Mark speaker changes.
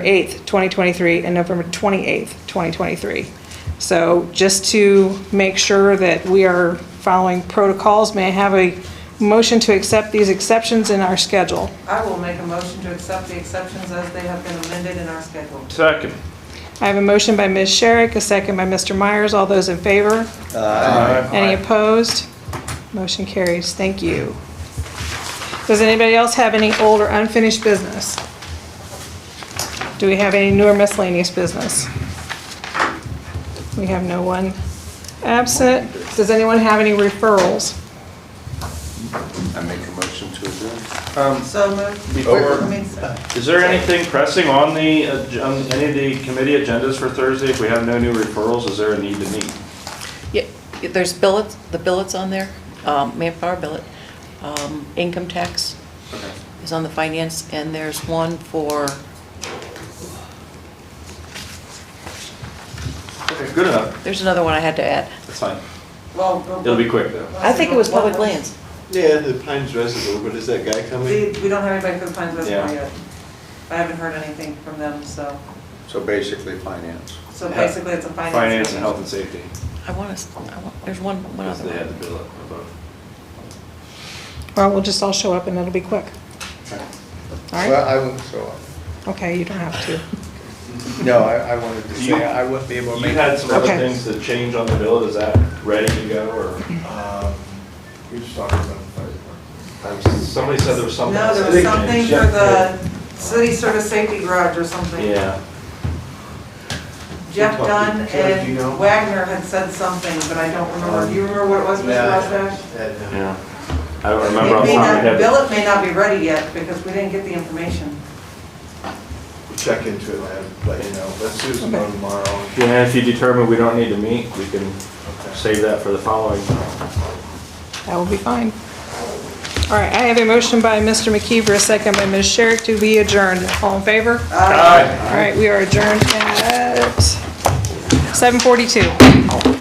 Speaker 1: 8th, 2023, and November 28th, 2023. So just to make sure that we are following protocols, may I have a motion to accept these exceptions in our schedule?
Speaker 2: I will make a motion to accept the exceptions as they have been amended in our schedule.
Speaker 3: Second.
Speaker 1: I have a motion by Ms. Sherrick, a second by Mr. Myers. All those in favor?
Speaker 3: Aye.
Speaker 1: Any opposed? Motion carries. Thank you. Does anybody else have any old or unfinished business? Do we have any newer miscellaneous business? We have no one absent. Does anyone have any referrals?
Speaker 4: I make a motion to adjourn.
Speaker 2: So moved. I
Speaker 3: Before,
Speaker 2: mean, so-
Speaker 3: is there anything pressing on the, ag- on any of the committee agendas for Thursday? If we have no new referrals, is there a need to meet?
Speaker 5: Yeah, there's billets, the billets on there, um, manpower billet, um, income tax
Speaker 3: Okay.
Speaker 5: is on the finance, and there's one for,
Speaker 3: Okay, good enough.
Speaker 5: there's another one I had to add.
Speaker 3: That's fine.
Speaker 2: Well, well,
Speaker 3: It'll be quick, though.
Speaker 5: I think it was public lands.
Speaker 6: Yeah, the Pines Reservoir, but is that guy coming?
Speaker 2: We we don't have anybody for the Pines Reservoir
Speaker 3: Yeah.
Speaker 2: yet. I haven't heard anything from them, so,
Speaker 4: So basically finance.
Speaker 2: so basically it's a finance.
Speaker 3: Finance and
Speaker 2: issue.
Speaker 3: health and safety,
Speaker 5: I want to, I want, there's one, one
Speaker 3: because
Speaker 5: other
Speaker 3: they had
Speaker 5: one.
Speaker 3: the bill up above.
Speaker 1: Or we'll just all show up and it'll be quick. All
Speaker 7: Well,
Speaker 1: right?
Speaker 7: I won't show up.
Speaker 1: Okay, you don't have to.
Speaker 7: No, I, I wanted to
Speaker 3: You-
Speaker 7: say, I wouldn't be able to
Speaker 3: You
Speaker 7: make.
Speaker 3: had some other
Speaker 1: Okay.
Speaker 3: things to change on the bill. Is that ready to go, or
Speaker 7: Um, We just talked about the fire
Speaker 3: somebody said there was something?
Speaker 2: No,
Speaker 3: else
Speaker 2: there
Speaker 3: that
Speaker 2: was
Speaker 3: they
Speaker 2: something
Speaker 3: changed.
Speaker 2: for the city service safety garage or something.
Speaker 3: Yeah,
Speaker 2: Jeff Dunn
Speaker 6: Jeff, do you know? Um,
Speaker 2: and Wagner had said something, but I don't remember. Do you remember what it was, Mr. Rosbash?
Speaker 3: yeah. I don't remember
Speaker 2: It
Speaker 3: off the
Speaker 2: may
Speaker 3: top
Speaker 2: not,
Speaker 3: of my head.
Speaker 2: Billet may not be ready yet because we didn't get the information.
Speaker 6: We'll Check into it, man, but you know, let's do some more tomorrow.
Speaker 3: Yeah, if you determine we don't need to meet, we can
Speaker 6: Okay.
Speaker 3: save that for the following.
Speaker 1: That will be fine. All right, I have a motion by Mr. McKeever, a second by Ms. Sherrick to be adjourned. All in favor?
Speaker 3: Aye.
Speaker 1: All right, we are adjourned at 7:42.